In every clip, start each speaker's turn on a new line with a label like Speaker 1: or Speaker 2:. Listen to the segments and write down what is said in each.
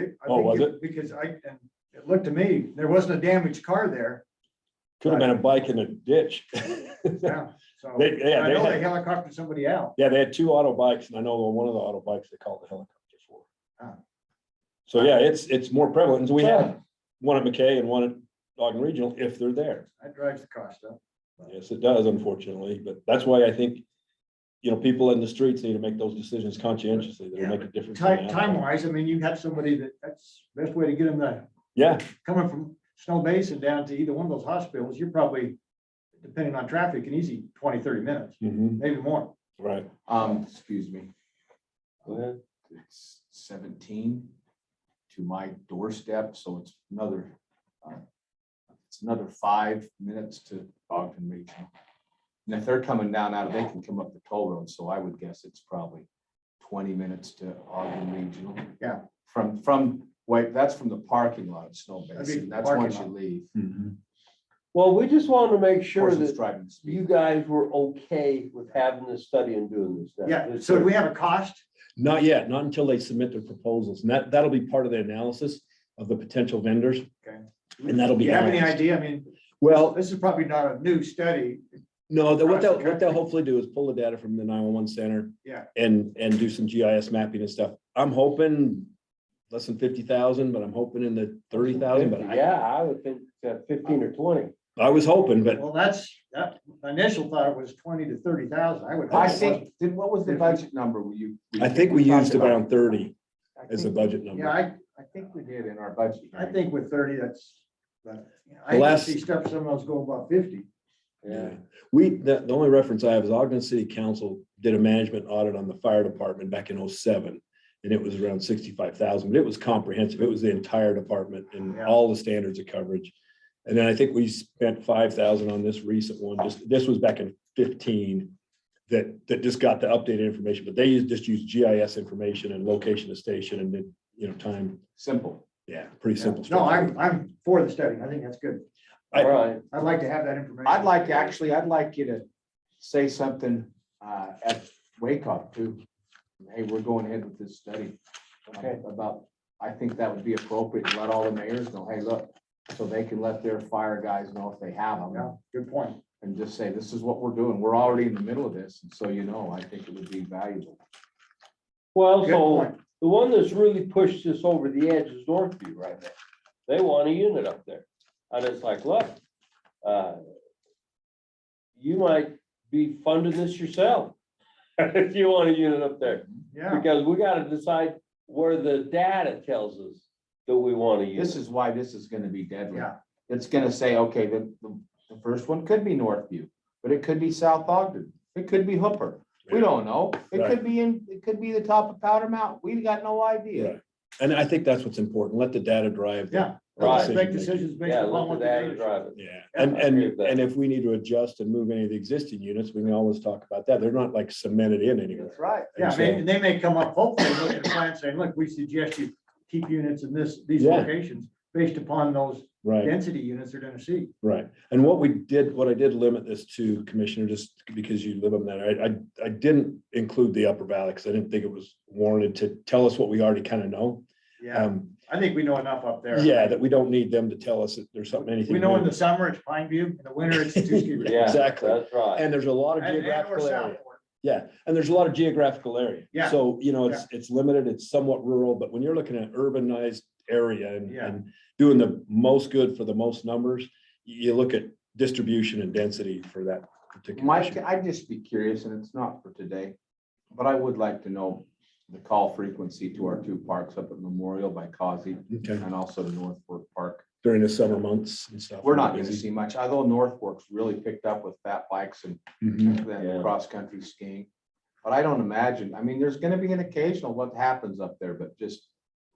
Speaker 1: it. I
Speaker 2: Oh,
Speaker 1: think
Speaker 2: was
Speaker 1: Because I, and it looked to me, there wasn't a damaged car there,
Speaker 2: Could have been a bike in a ditch.
Speaker 1: yeah, so.
Speaker 2: They- yeah,
Speaker 1: I
Speaker 2: they
Speaker 1: know
Speaker 2: had-
Speaker 1: they helicoptered somebody out.
Speaker 2: Yeah, they had two auto bikes and I know one of the auto bikes they called the helicopter for.
Speaker 1: Ah.
Speaker 2: So yeah, it's, it's more prevalent. So we have one at McKay and one at Ogden Regional if they're there.
Speaker 1: That drives the cost up.
Speaker 2: Yes, it does unfortunately, but that's why I think, you know, people in the streets need to make those decisions conscientiously. They'll
Speaker 1: Yeah,
Speaker 2: make a difference. in the
Speaker 1: Time,
Speaker 2: outcome.
Speaker 1: time wise, I mean, you have somebody that, that's the best way to get them to,
Speaker 2: Yeah,
Speaker 1: coming from Snow Basin down to either one of those hospitals, you're probably, depending on traffic, an easy 20, 30 minutes,
Speaker 2: mhm,
Speaker 1: maybe more.
Speaker 2: right.
Speaker 3: Um, excuse me. It's seventeen to my doorstep, so it's another, uh, it's another five minutes to Ogden Regional. And if they're coming down out, of they can come up the toll road, so I would guess it's probably twenty minutes to Ogden Regional.
Speaker 1: Yeah.
Speaker 3: From, from, wait, that's from the parking lot of Snow
Speaker 1: That'd be
Speaker 3: Basin. That's
Speaker 1: parking
Speaker 3: once you
Speaker 1: lot.
Speaker 3: leave.
Speaker 2: Hmm.
Speaker 4: Well, we just wanted to make sure
Speaker 3: Person's
Speaker 4: that
Speaker 3: driving the speed.
Speaker 4: you guys were okay with having this study and doing this. stuff.
Speaker 1: Yeah,
Speaker 4: This
Speaker 1: so
Speaker 4: is-
Speaker 1: we have a cost.
Speaker 2: Not yet, not until they submit their proposals. And that, that'll be part of the analysis of the potential vendors.
Speaker 1: Okay.
Speaker 2: And that'll
Speaker 1: Do
Speaker 2: be.
Speaker 1: you have any
Speaker 2: balanced.
Speaker 1: idea? I mean,
Speaker 2: Well,
Speaker 1: this is probably not a new study.
Speaker 2: No, that what
Speaker 1: across
Speaker 2: they'll,
Speaker 1: the
Speaker 2: what they'll hopefully do is pull the data from the nine-one-one center.
Speaker 1: Yeah.
Speaker 2: And, and do some GIS mapping and stuff. I'm hoping less than fifty thousand, but I'm hoping in the thirty thousand, but I,
Speaker 4: Yeah, I would think uh, fifteen or twenty.
Speaker 2: I was hoping, but
Speaker 1: Well, that's, that, my initial thought was twenty to thirty thousand. I would. hope
Speaker 3: I
Speaker 1: it wasn't.
Speaker 3: think, then what was the budget number we you?
Speaker 2: I think we
Speaker 3: talked
Speaker 2: used
Speaker 3: about?
Speaker 2: around thirty
Speaker 3: I
Speaker 2: as the
Speaker 3: think-
Speaker 2: budget
Speaker 1: Yeah,
Speaker 2: number.
Speaker 1: I,
Speaker 3: I think we did in our budget.
Speaker 1: I
Speaker 3: hearing.
Speaker 1: think with thirty, that's, but you know,
Speaker 2: The
Speaker 1: I can
Speaker 2: last-
Speaker 1: see stuff, some of those go above fifty.
Speaker 2: Yeah. We, the, the only reference I have is Ogden City Council did a management audit on the fire department back in 07, And it was around sixty-five thousand, but it was comprehensive. It was the entire department and
Speaker 1: Yeah.
Speaker 2: all the standards of coverage. And then I think we spent five thousand on this recent one, just, this was back in fifteen. That, that just got the updated information, but they used- just used GIS information and location of station and then, you know, time.
Speaker 3: Simple.
Speaker 2: Yeah, pretty simple.
Speaker 1: No, I'm,
Speaker 2: structure.
Speaker 1: I'm for the study. I think that's good.
Speaker 2: I-
Speaker 4: All right.
Speaker 1: I'd like to have that information.
Speaker 3: I'd like, actually, I'd like you to say something uh, at Wake Up too. Hey, we're going ahead with this study. um,
Speaker 4: Okay.
Speaker 3: About, I think that would be appropriate. to Let all the mayors know, hey, look, so they can let their fire guys know if they have
Speaker 1: Yeah,
Speaker 3: them.
Speaker 1: good point.
Speaker 3: And just say, this is what we're doing. We're already in the middle of this. And so you know, I think it would be valuable.
Speaker 4: Well,
Speaker 1: Good
Speaker 4: so
Speaker 1: point.
Speaker 4: the one that's really pushed this over the edge is Northview right now. They want a unit up there. And it's like, look, uh, you might be funding this yourself if you want a unit up there.
Speaker 1: Yeah,
Speaker 4: Because we gotta decide where the data tells us that we want to
Speaker 3: This
Speaker 4: use.
Speaker 3: is why this is gonna be deadly.
Speaker 1: yeah,
Speaker 3: It's gonna say, okay, the, the, the first one could be Northview, but it could be South Ogden, it could be Hooper. We don't know. It could be in, it could be the top of Powder Mountain. We've got no idea.
Speaker 2: Right. And I think that's what's important. Let the data drive. the-
Speaker 1: yeah.
Speaker 2: the
Speaker 4: Right.
Speaker 1: Let's Make
Speaker 2: decision-making.
Speaker 1: decisions based
Speaker 4: Yeah,
Speaker 1: upon
Speaker 4: look
Speaker 1: what
Speaker 4: at
Speaker 1: the
Speaker 4: that and
Speaker 1: data.
Speaker 4: drive it.
Speaker 2: Yeah,
Speaker 1: Yeah,
Speaker 2: and,
Speaker 4: I
Speaker 2: and,
Speaker 4: agree with that.
Speaker 2: and if we need to adjust and move any of the existing units, we can always talk about that. They're not like cemented in anywhere.
Speaker 3: right.
Speaker 1: Yeah,
Speaker 2: And
Speaker 1: they-
Speaker 2: so-
Speaker 1: and they may come up, hopefully, look at a plan saying, look, we suggest you keep units in this, these
Speaker 2: Yeah.
Speaker 1: locations based upon those
Speaker 2: Right,
Speaker 1: density units they're gonna see.
Speaker 2: right. And what we did, what I did limit this to, Commissioner, just because you live on that, I, I, I didn't include the Upper Valley because I didn't think it was warranted to tell us what we already kind of know.
Speaker 1: Yeah,
Speaker 2: Um,
Speaker 1: I think we know enough up there.
Speaker 2: yeah, that we don't need them to tell us that there's something, anything.
Speaker 1: We know in
Speaker 2: new.
Speaker 1: the summer it's Pine View, in the winter it's Tuskegee. Ridge.
Speaker 4: Yeah,
Speaker 2: Exactly.
Speaker 4: That's right.
Speaker 2: And there's a lot of
Speaker 1: And- and or
Speaker 2: geographical area.
Speaker 1: Southport.
Speaker 2: Yeah, and there's a lot of geographical area.
Speaker 1: Yeah.
Speaker 2: So, you know, it's, it's limited, it's somewhat rural, but when you're looking at urbanized area and,
Speaker 1: Yeah.
Speaker 2: and doing the most good for the most numbers, you, you look at distribution and density for that particular.
Speaker 3: Mike,
Speaker 2: issue.
Speaker 3: I'd just be curious, and it's not for today, but I would like to know the call frequency to our two parks up at Memorial by Causey
Speaker 2: Okay,
Speaker 3: and also to North Fork Park.
Speaker 2: during the summer months and stuff.
Speaker 3: We're not gonna see much, although North Fork's really picked up with fat bikes and
Speaker 2: Mhm.
Speaker 3: than
Speaker 4: Yeah.
Speaker 3: cross-country skiing. But I don't imagine, I mean, there's gonna be an occasional what happens up there, but just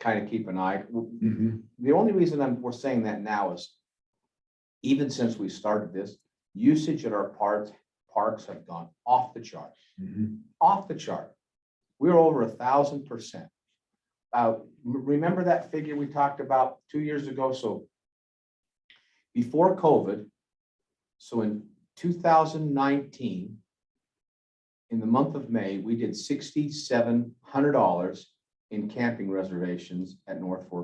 Speaker 3: kind of keep an eye.
Speaker 2: Mhm.
Speaker 3: The only reason I'm, we're saying that now is even since we started this, usage at our parks, parks have gone off the chart,
Speaker 2: Mhm.
Speaker 3: off the chart. We're over a thousand percent. Uh, m- remember that figure we talked about two years ago? So before COVID, so in two thousand nineteen, in the month of May, we did sixty-seven hundred dollars in camping reservations at North Fork